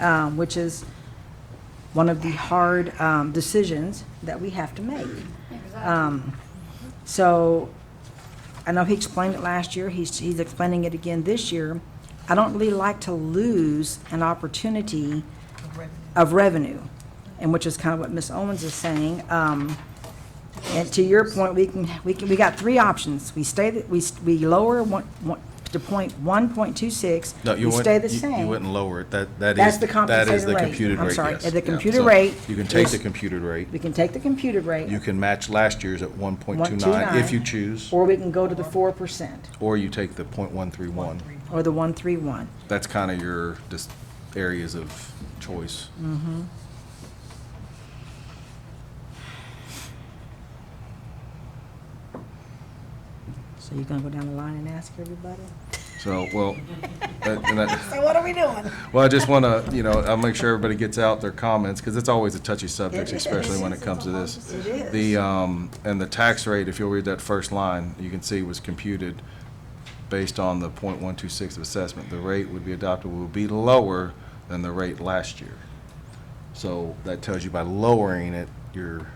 um, which is one of the hard um, decisions that we have to make. Um, So I know he explained it last year, he's, he's explaining it again this year. I don't really like to lose an opportunity of revenue, and which is kind of what Ms. Owens is saying. Um, And to your point, we can, we can, we got three options. We stay, the- we, we lower one, one, to point one point two six. No, you We stay wouldn't, the you- you same. wouldn't lower it. That, that is. That's the That is compensated the rate. computed I'm rate, sorry, yes. at the Yeah. computer So rate You can take is- the computed rate. We can take the computed rate. You can match last year's at one point two nine 1.29, if you choose, Or we can go to the four percent, or you take the point one three one. or the one three one. That's kind of your, just areas of choice. Mm. So you're gonna go down the line and ask everybody? So, well, that- and that- So what are we doing? Well, I just want to, you know, I'll make sure everybody gets out their comments, because it's always a touchy subject, It is. especially when it comes to this. It is. The, um, and the tax rate, if you'll read that first line, you can see was computed based on the .126 of assessment. The rate would be adopted will be lower than the rate last year. So that tells you by lowering it, you're,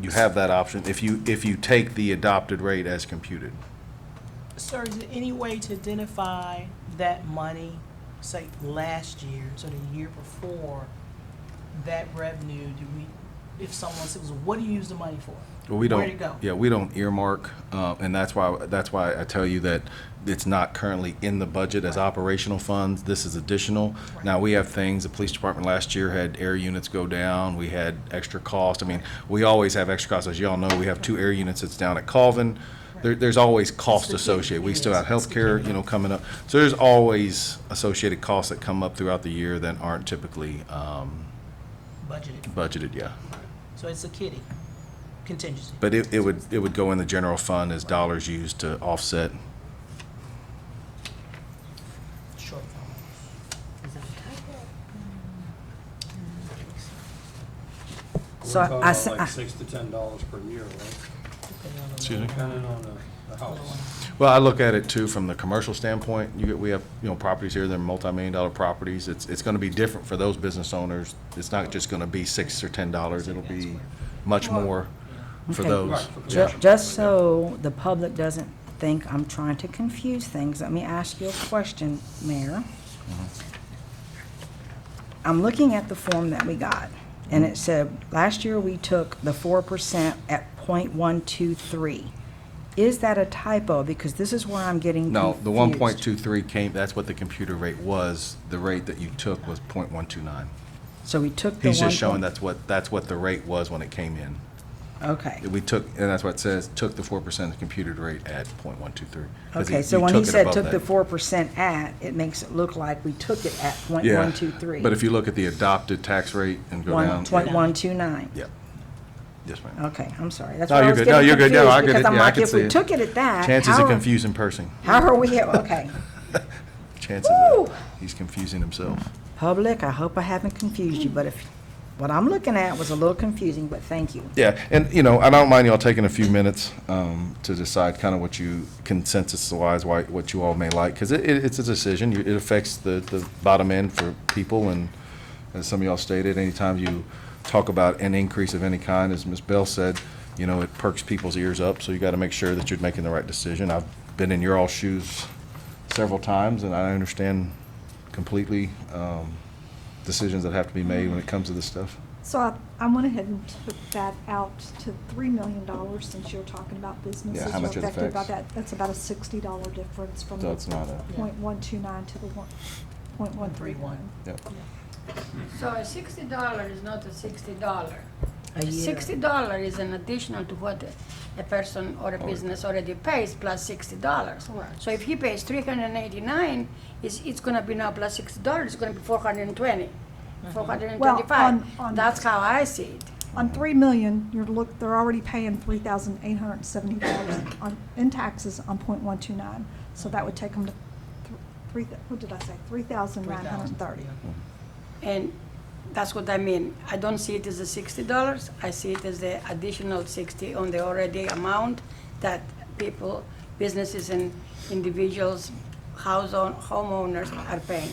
you have that option, if you, if you take the adopted rate as computed. Sir, is there any way to identify that money, say, last year, so the year before, that revenue, do we, if someone says, what do you use the money for? Well, we don't. Where'd it go? Yeah, we don't earmark, uh, and that's why, that's why I tell you that it's not currently in the budget as operational funds. This is additional. Now, we have things, the police department last year had air units go down, we had extra cost. I mean, we always have extra costs. As y'all know, we have two air units that's down at Colvin. There, there's always cost the key. associated. We still Yes, have healthcare, you know, coming up. So there's always associated costs that come up throughout the year that aren't typically, um, Budgeted, budgeted, yeah. so it's a kitty contingency. But it, it would, it would go in the general fund as dollars used to offset. Short So We're I- talking I about s- I- Like six to ten dollars per year, right? Excuse me? Depending on the, the house. Well, I look at it too from the commercial standpoint. You, get- we have, you know, properties here, they're multi-million dollar properties. It's, it's gonna be different for those business owners. It's not just gonna be six or ten dollars. It'll be much more for Okay. those. Right, for Yeah. Ju- Just so the public doesn't think I'm trying to confuse things, let me ask you a question, Mayor. Mm-hmm. I'm looking at the form that we got, and Mm-hmm. it said, last year we took the four percent at point one two three. Is that a typo? Because this is where I'm getting No, the one confused. point two three came, that's what the computer rate was. The rate that you took was point one two nine. So we took the one. He's just showing point- that's what, that's what the rate was when it came in. Okay. We took, and that's what it says, took the four percent of the computed rate at point one two three. Okay, so when he said took the four percent at, it makes it look like we took it at point Yeah, one two three. But if you look at the adopted tax rate and go down. One, point one two nine. Yeah. Yes, ma'am. Okay, I'm sorry. That's No, why I you're was good. No, getting you're good. No, confused, I get because it. I'm Yeah, I like, can if we see it. took it at that, Chances how of are- confusing person. How are we, okay. Chances of, Woo! he's confusing himself. Public, I hope I haven't confused you, but if, what I'm looking at was a little confusing, but thank you. Yeah, and, you know, I don't mind y'all taking a few minutes um, to decide kind of what you consensus-wise, why, what you all may like, because it, it- it's a decision. You- It affects the, the bottom end for people, and as some of y'all stated, anytime you talk about an increase of any kind, as Ms. Bell said, you know, it perks people's ears up, so you got to make sure that you're making the right decision. I've been in your all shoes several times, and I understand completely um, decisions that have to be made when it comes to this stuff. So I, I went ahead and took that out to three million dollars since you're talking about businesses how are much it affected by affects. that. That's about a sixty dollar difference from So the it's not a- point one two nine to the one, point one three one. Yep. So a sixty dollar is not a sixty dollar. A year. Sixty dollar is an additional to what a person or Oh. a business already pays plus sixty dollars. So if he pays three hundred and eighty-nine, it's, it's gonna be now plus sixty dollars, it's gonna be four hundred and twenty, four hundred and Mm-hmm. Well, on- twenty-five. on- That's how I see it. On three million, you're look, they're already paying three thousand eight hundred and seventy dollars on, in taxes on point one two nine. So that would take them to thr- three, thou- what did I say, three thousand nine hundred and thirty. And that's what I mean. I don't see it as a sixty dollars. I see it as the additional sixty on the already amount that people, businesses and individuals, house own, homeowners are paying.